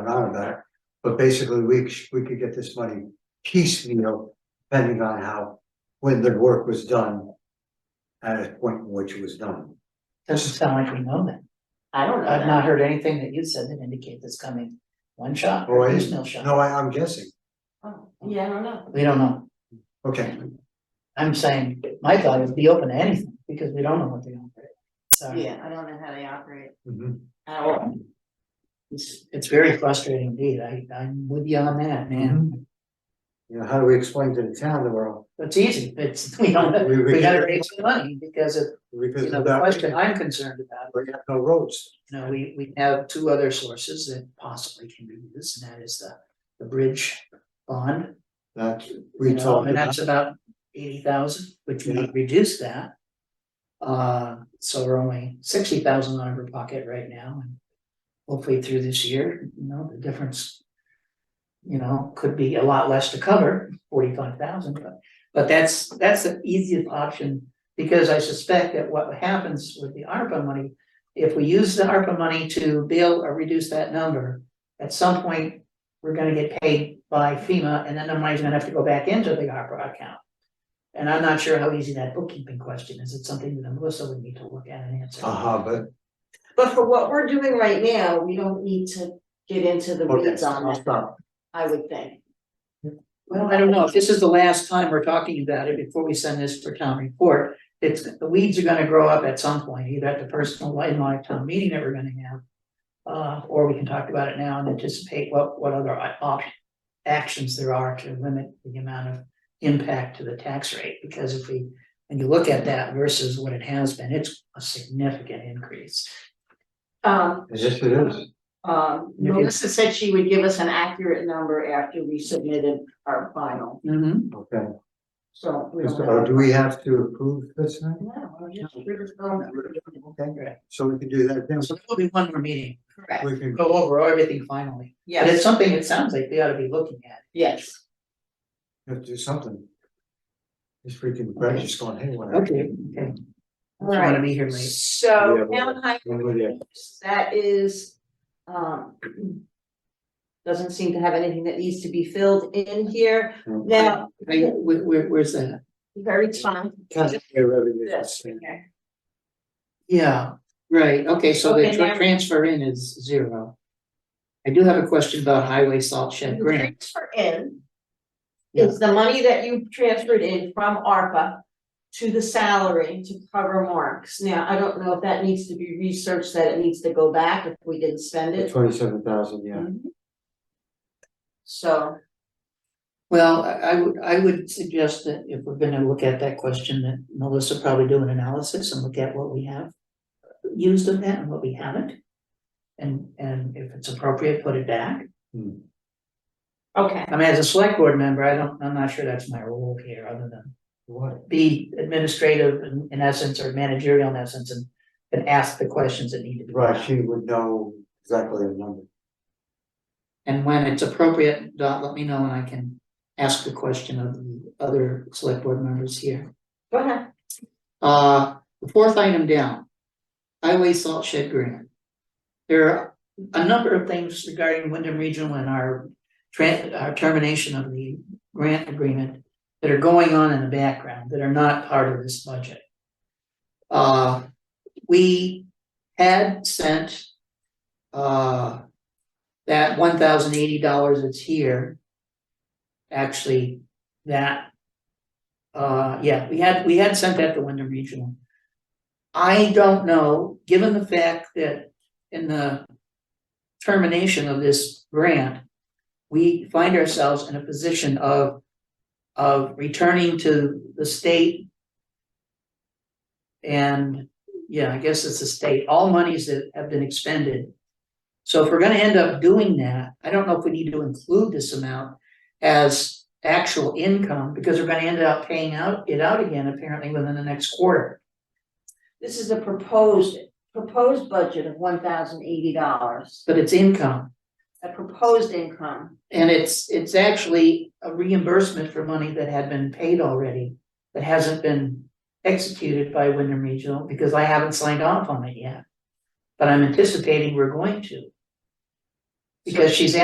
on about it. But basically, we, sh- we could get this money piecemeal, depending on how, when the work was done. At a point in which it was done. Doesn't sound like we know that. I don't know I've not that. heard anything that you said that indicate that's coming one shot Oh, or I there's didn't- no shot. No, I, I'm guessing. Oh, Yeah, I don't know. We don't know. Okay, I'm saying, my thought is be open to anything because we don't know what they offer. So Yeah, I don't know how they operate. Mhm. I don't, it's, it's very frustrating indeed. I, I'm with you on that, man. Mm-hmm. you know, how do we explain to the town that we're, all- It's easy. It's, we don't, Mm-hmm. We- we- we gotta raise the money because of, because you of know, the that, question I'm concerned about we have no roads. You know, we, we have two other sources that possibly can be used, and that is the, the bridge bond. That you we know, talked And about, that's about eighty thousand, which we reduce that. Uh, so we're only sixty thousand out of our pocket right now, and hopefully through this year, you know, the difference. You know, could be a lot less to cover, forty-five thousand, but, but that's, that's the easiest option. Because I suspect that what happens with the ARPA money if we use the ARPA money to bill or reduce that number, at some point, we're gonna get paid by FEMA, and then the money's gonna have to go back into the ARPA account. And I'm not sure how easy that bookkeeping question is, it's something that Melissa would need to look at and answer. uh-huh, but, but for what we're doing right now, we don't need to get into the okay, weeds on I'll that, stop. I would think. Well, I don't know, if this is the last time we're talking about it before we send this for town report, it's, the weeds are gonna grow up at some point, either at the personal in my town meeting that we're gonna have. Uh, or we can talk about it now and anticipate what, what other op- actions there are to limit the amount of impact to the tax rate, because if we, when you look at that versus what it has been, it's a significant increase. Um, Yes, it is. um, You can- Melissa said she would give us an accurate number after we submitted our final, Mm-hmm. Okay. so we don't So, uh, have. do we have to approve this now? No, I'm just- we're just going- Okay, so we can do that then. So there will be one more meeting, Correct, We can, go over everything finally, but it's yes, something it sounds like we ought to be looking at. yes, have to do something. This freaking bridge is going haywire. Okay, okay. I don't wanna Alright. be here late. so Yeah, well, town highway When we get- That is, um. Doesn't seem to have anything that needs to be filled in here. Mm. Now, I, where, where- where's that? very fine. Taxpayer revenue. This, okay. Yeah, right, okay, so the Okay, tra- now- transfer in is zero. I do have a question about highway salt The shed grant. transfer in. Is the money that you transferred in from ARPA to the salary to cover marks. Now, I don't know if that needs to be researched, that it needs to go back if we didn't spend it. Mm-hmm. Twenty-seven thousand, yeah. So, Well, I, I would, I would suggest that if we're gonna look at that question, that Melissa probably do an analysis and look at what we have used of that and what we haven't. And, and if it's appropriate, put it back. Hmm. okay, I mean, as a select board member, I don't, I'm not sure that's my role here, other than What? be administrative in, in essence or managerial in essence and, and ask the questions that need to be. Right, asked. she would know exactly the number. And when it's appropriate, Dot, let me know and I can ask the question of the other select board members here. go ahead. Uh, the fourth item down, highway salt shed grant. There are a number of things regarding Wyndham Regional and our tran- our termination of the grant agreement that are going on in the background that are not part of this budget. Uh, we had sent uh that one thousand eighty dollars that's here. Actually, that uh, yeah, we had, we had sent that to Wyndham Regional. I don't know, given the fact that in the termination of this grant, we find ourselves in a position of, of returning to the state. And, yeah, I guess it's the state, all monies that have been expended. So if we're gonna end up doing that, I don't know if we need to include this amount as actual income, because we're gonna end up paying out, it out again apparently within the next quarter. This is a proposed, proposed budget of one thousand eighty dollars, But it's income, a proposed income. and it's, it's actually a reimbursement for money that had been paid already, that hasn't been executed by Wyndham Regional, because I haven't signed off on it yet. But I'm anticipating we're going to. Because she's